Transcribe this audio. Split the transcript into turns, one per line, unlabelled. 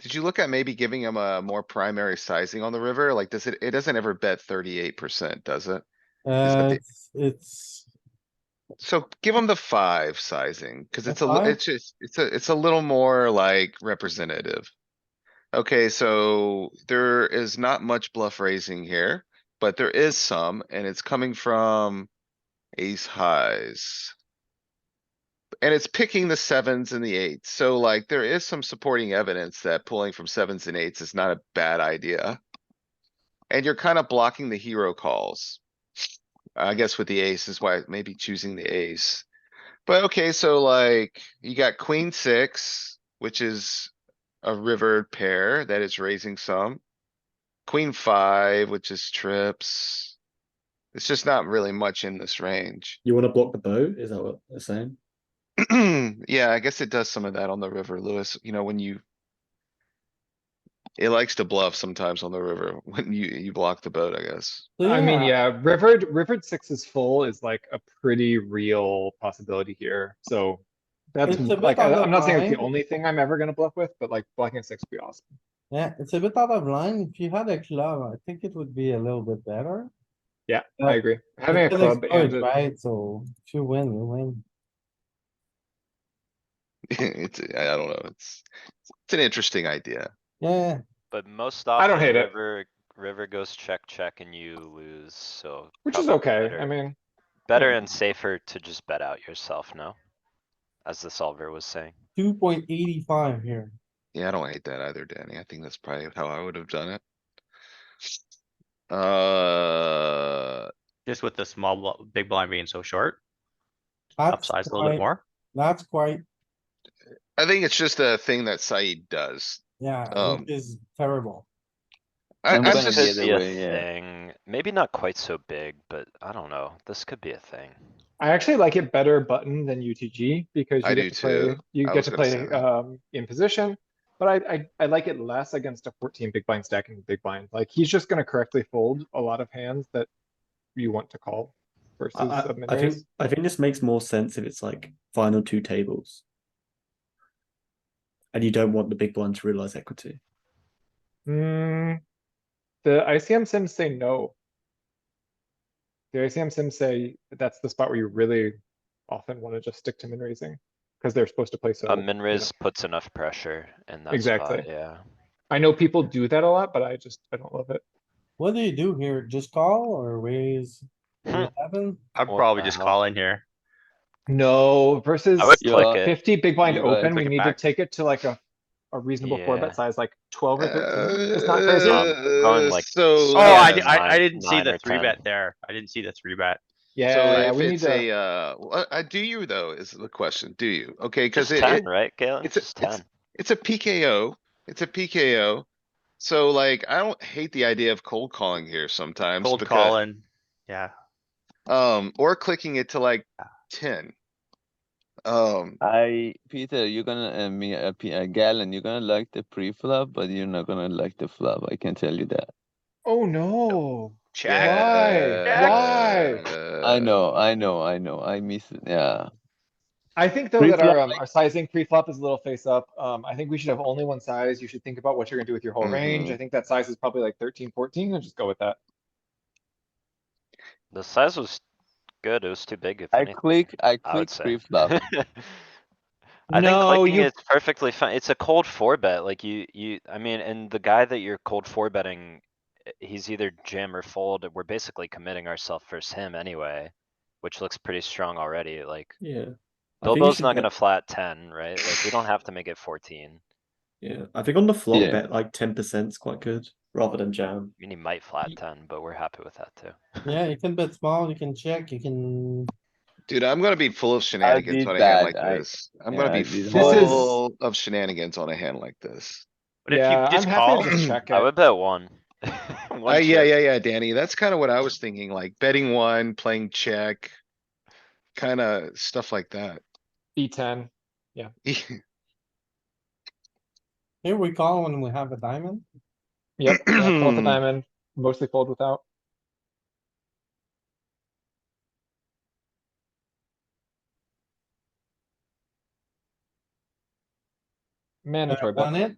Did you look at maybe giving him a more primary sizing on the river? Like, does it, it doesn't ever bet thirty-eight percent, does it? that
Uh,
the-
it's- it's,
So give him the five sizing, cuz
The
it's a, li-
five?
it's just, it's a, it's a little more like representative. Okay, so there is not much bluff raising here, but there is some, and it's coming from ace highs. And it's picking the sevens and the eights, so like there is some supporting evidence that pulling from sevens and eights is not a bad idea. And you're kind of blocking the hero calls. I guess with the ace is why maybe choosing the ace. But okay, so like you got queen six, which is a river pair that is raising some. Queen five, which is trips. It's just not really much in this range.
You want to block the boat? Is that what they're saying?
Yeah, I guess it does some of that on the river, Lewis, you know, when you. It likes to bluff sometimes on the river when you, you block the boat, I guess.
I mean, yeah, rivered, rivered sixes full is like a pretty real possibility here, so. That's
It's a bit
like, I-
on the
I'm not saying it's the
line.
only thing I'm ever gonna bluff with, but like blocking a six would be awesome.
Yeah, it's a bit out of line. If you had a club, I think it would be a little bit better.
Yeah,
Yeah.
I agree. Having a
It's an
club and,
exploit,
a-
Right, so if you win, you win.
It's, I don't know, it's, it's an interesting idea.
Yeah,
But most
I
often.
don't hate it.
River, river goes check, check and you lose, so.
which is
probably
okay,
better-
I mean,
Better and safer to just bet out yourself, no? As the solver was saying.
two point eighty-five here.
Yeah, I don't hate that either, Danny. I think that's probably how I would have done it. Uh,
Just with the small, bl- big blind being so short,
That's
upsize a little bit
quite-
more.
That's quite,
I think it's just a thing that Said does.
yeah,
Um,
which is terrible.
I,
I'm
I'm
gonna
just,
get
Could be a
way, yeah.
thing, maybe not quite so big, but I don't know, this could be a thing.
I actually like it better button than UTG because
I
you
do
get to play,
too.
you
I
get
was
to
gonna say
play,
that.
um, in position. But I, I, I like it less against a fourteen big blind stacking the big blind. Like, he's just gonna correctly fold a lot of hands that you want to call versus
I, I,
sub
I think
raise.
I think this makes more sense if it's like final two tables, and you don't want the big blind to realize equity.
Hmm. The ICM sims say no. The ICM sims say that's the spot where you really often wanna just stick to min raising, cause they're supposed to play so.
A
you
Uh, min
know.
raise puts enough pressure in that
Exactly.
spot, yeah.
I know people do that a lot, but I just, I don't love it.
What do you do here? Just call or raise
Hmm.
eleven?
I'd
Well,
probably just
uh-huh.
call in here.
No, versus
I would
Yeah.
click it,
fifty big blind
You gotta
open, we
click it
need to
back.
take it to like a, a reasonable four
Yeah.
bet size, like twelve or thirteen. It's not crazy.
Going
uh,
like-
so.
Oh,
Oh, I,
yeah,
di- I, I
nine-
didn't see
nine or
the three
10.
bet there. I didn't see the three bet.
So
Yeah,
if
we need
it's a,
to,
uh, well, uh, do you though, is the question, do you? Okay, cuz
just
it,
ten,
it,
right, Galen?
it's a-
Just
it's-
ten.
it's a PKO, it's a PKO. So like, I don't hate the idea of cold calling here sometimes.
Cold
because-
call in. Yeah.
Um, or clicking it to like ten.
Uh,
Um,
I, Peter, you're gonna, uh, me, uh, P- uh, Galen, you're gonna like the pre-flop, but you're not gonna like the flop. I can tell you that.
oh no.
Check.
Why? Why?
Uh,
I know, I know, I know. I miss it. Yeah.
I think though that our,
Pre-flop,
um, our sizing pre-flop is a little face up. Um, I think we should have only one size. You should think about what you're gonna do with your whole range. I think that size is probably like 13, 14, and just go with that.
The size was good, it was too big if
I
anything.
click, I
I would
click
say.
pre-flop.
I think
No,
clicking
you-
it's perfectly fine. It's a cold four bet, like you, you, I mean, and the guy that you're cold four betting, eh, he's either jam or fold, we're basically committing ourselves versus him anyway. Which looks pretty strong already, like
Yeah. I think you
Bilbo's
should
not
bet-
gonna flat ten, right? Like, we don't have to make it fourteen,
Yeah, I think on the flop,
Yeah.
bet like ten percent is quite good rather than jam.
I mean, he might flat ten, but we're happy with that too.
Yeah, you can bet small, you can check, you can,
Dude, I'm gonna be full of shenanigans
did
on a hand
that,
like
I-
this. I'm gonna
yeah,
be
I did that.
This is-
full of shenanigans on a hand like this.
But if
Yeah,
you just
I'm happy
call,
to just check
I
it.
would bet one.
Uh, yeah, yeah, yeah, Danny, that's kinda what I was thinking, like betting one, playing check. Kinda stuff like that.
B ten.
here we call when we have a diamond.
Yep, yeah, fold the diamond, mostly fold without. Mandatory
Uh,
bet.
On it,